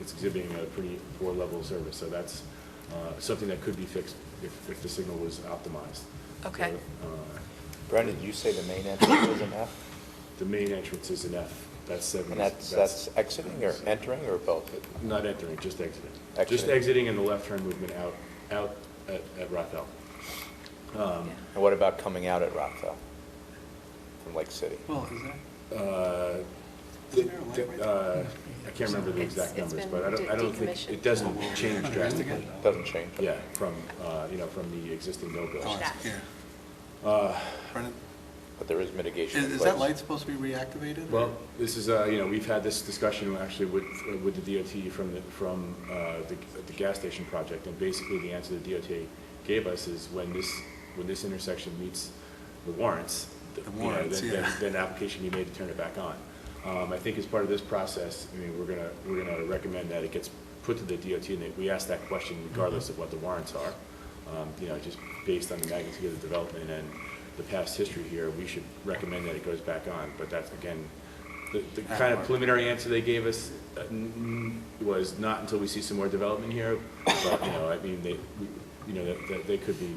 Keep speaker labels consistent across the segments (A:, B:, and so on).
A: it's exhibiting a pretty poor level of service. So that's uh, something that could be fixed if, if the signal was optimized.
B: Okay.
A: So, uh,
C: Brendan, did you say the main entrance was an F?
A: The main entrance is an F, that's seven.
C: And that's, that's exiting or entering or both?
A: Not entering, just exiting. Just
C: Exiting.
A: exiting in the left turn movement out, out at, at Rothel.
B: Yeah.
C: And what about coming out at Rockville from Lake City?
D: Well, is that?
A: Uh,
D: Isn't there a light
A: the-
D: right
A: the- uh, I can't remember the
B: It's-
A: exact
B: it's
A: numbers,
B: been
A: but I don't, I
B: de-
A: don't think,
B: decommissioned.
A: it doesn't change drastically.
C: Doesn't change.
A: Yeah, from, uh, you know, from the existing
D: Oh,
A: no-go.
B: That.
D: it's here. Brendan,
C: But there is mitigation in
D: Is,
C: place.
D: is that light supposed to be reactivated?
A: Well, this is, uh, you know, we've had this discussion actually with, uh, with the DOT from the, from uh, the the gas station project, and basically the answer the DOT gave us is when this, when this intersection meets the warrants, th-
D: The
A: you know,
D: warrants,
A: then- then-
D: yeah.
A: Then application be made to turn it back on. Um, I think as part of this process, I mean, we're gonna, we're gonna recommend that it gets put to the DOT, and that we ask that question regardless of what the warrants are. Um, You know, just based on the magnitude of the development and the past history here, we should recommend that it goes back on, but that's, again, the, the kind of preliminary answer they gave us uh, n- n- was not until we see some more development here, but, you know, I mean, they, we- you know, that, that they could be,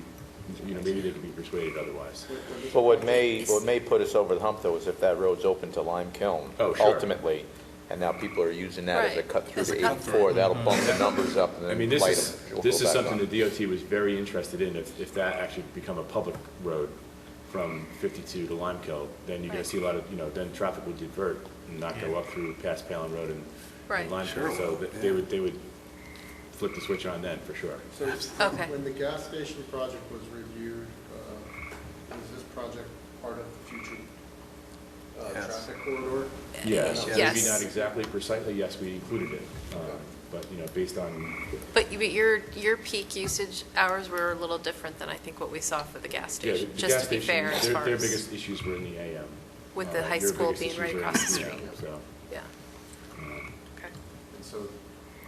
A: you know, maybe they could be persuaded otherwise.
C: But what may, what may put us over the hump, though, is if that road's open to Lime Kiln.
A: Oh, sure.
C: Ultimately, and now people are using that as a
B: Right,
C: cut-through
B: as a
C: to
B: cut-through.
C: 84, that'll bump the numbers up and
A: I
C: then
A: mean,
C: light them.
A: this is,
C: We'll
A: this
C: go
A: is
C: back
A: something
C: on.
A: the DOT was very interested in, if, if that actually become a public road from 52 to Limekill, then you're gonna
B: Right.
A: see a lot of, you know, then traffic would divert and not go
D: Yeah.
A: up through past Palin Road and-
B: Right.
A: and Limekill.
D: Sure
A: So
D: will,
A: th- they
D: yeah.
A: would, they would flip the switch on then, for sure.
E: So
B: Okay.
E: when the gas station project was reviewed, uh, is this project part of the future uh,
D: Yes.
E: traffic corridor?
A: Yes, maybe
B: Yes.
A: not exactly precisely, yes, we included it, um, but, you know, based on,
B: But you- but your, your peak usage hours were a little different than I think what we saw for the gas
A: yeah, the
B: station,
A: the
B: just
A: gas
B: to be fair
A: station,
B: as
A: their,
B: far
A: their
B: as.
A: biggest issues were in the AM.
B: With the
A: Uh,
B: high
A: your
B: school
A: biggest
B: being
A: issues
B: right
A: were in
B: across the
A: PM,
B: street.
A: So.
B: Yeah,
A: um,
B: okay.
E: And so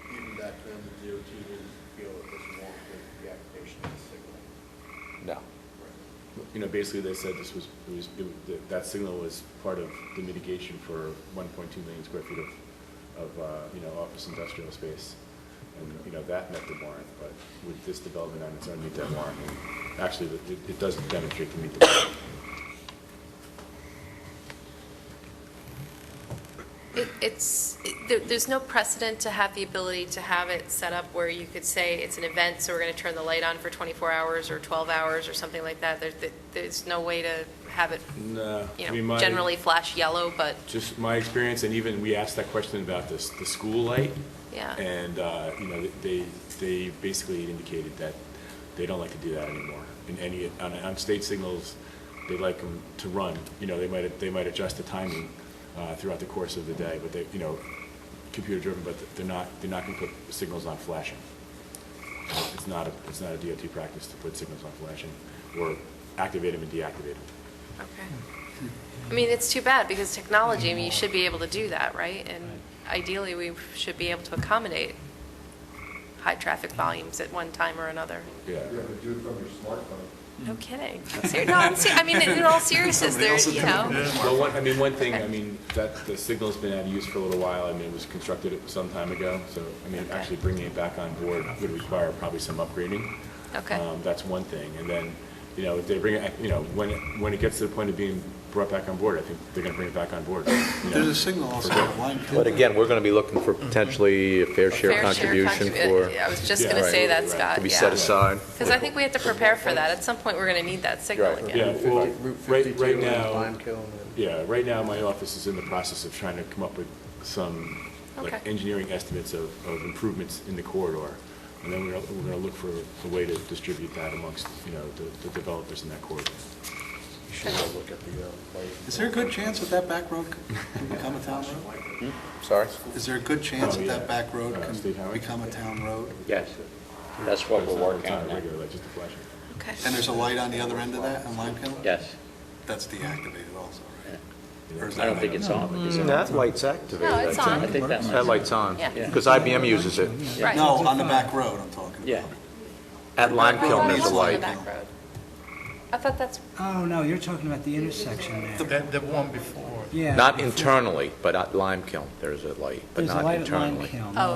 E: even back then, the DOT didn't feel it was warranted, the application of the signal.
C: No.
A: you know, basically they said this was, it was, it was- that- that signal was part of the mitigation for one point two million square feet of, of, uh, you know, office industrial space. And, you know, that met the warrant, but with this development on its own, meet that warrant. And Actually, it, it- it doesn't demonstrate to meet the warrant.
B: It- It's, it- there- there's no precedent to have the ability to have it set up where you could say it's an event, so we're going to turn the light on for 24 hours or 12 hours or something like that. There- there- There's no way to have it,
A: No, I
B: you
A: mean,
B: know,
A: my-
B: generally flash yellow, but,
A: Just my experience, and even, we asked that question about this, the school light.
B: yeah.
A: And, uh, you know, they, they basically indicated that they don't like to do that anymore. In any, on, on state signals, they like them to run, you know, they might, they might adjust the timing uh, throughout the course of the day, but they, you know, computer-driven, but they're not, they're not gonna put signals on flashing. It's not, a it's not a DOT practice to put signals on flashing, or activate them and deactivate them.
B: Okay. I mean, it's too bad, because technology, I mean, you should be able to do that, right? And ideally, we should be able to accommodate high-traffic volumes at one time or another.
A: Yeah.
E: do it from your smartphone.
B: No kidding. Ser- No, I'm ser- I mean, in all seriousness,
D: Somebody
B: there,
D: else is
B: you
D: doing
B: know.
D: it.
A: Well, one, I mean, one thing, I mean, that, the signal's been out of use for a little while, I mean, it was constructed some time ago, so, I mean,
B: Okay.
A: actually bringing it back on board would require probably some upgrading.
B: Okay.
A: Um, That's one thing, and then, you know, if they bring it, you know, when, it- when it gets to the point of being brought back on board, I think they're gonna bring it back on board. you know.
D: There's a signal also on line.
C: But again, we're going to be looking for potentially a fair share
B: Fair
C: contribution
B: contribu- uh,
C: for,
B: I was just
A: Yeah.
B: going to say
A: Right.
B: that, Scott, yeah.
C: to be set aside.
B: Because I think we have to prepare for that. At some point, we're going to need that signal
C: Right.
B: again.
A: Yeah, well, right, right now.
E: Kiln
A: Yeah, right now, my office is in the process of trying to come up with some, like,
B: Okay.
A: engineering estimates of, of improvements in the corridor. And then we're, we're gonna look for a way to distribute that amongst, you know, the, the developers in that corridor.
E: You should go look at the uh, light.
D: Is there a good chance that that back road could become a town road?
C: Sorry?
D: Is there a good chance
A: Oh,
D: that
A: yeah.
D: that back road
A: Uh,
D: can
A: state highway?
D: become a town road?
F: Yes, that's what
A: It's
F: we're
A: not-
F: working on
A: It's not a
F: now.
A: regular, like, just a flashing.
B: Okay.
D: And there's a light on the other end of that on Lime Kiln?
F: Yes.
D: That's deactivated also, right? Or is
F: I don't
D: that
F: think
D: lit?
F: it's on, but it's on.
C: Mm, That light's
B: No,
C: activated.
B: it's on.
F: I think that's
C: That
F: on.
C: light's on.
B: Yeah.
C: Because IBM uses it.
B: Right.
D: No, on the back road I'm talking about.
F: Yeah.
C: At Lime
B: I
C: Kiln,
B: thought it
C: there's a
B: was on the
C: light.
B: back road. I thought that's,
G: Oh, no, you're talking about the intersection there.
H: The, the one before.
G: Yeah.
C: Not internally, but at Lime Kiln, there's a light, but
G: There's a
C: not
G: light at Lime
C: internally.
G: Kiln.
B: oh,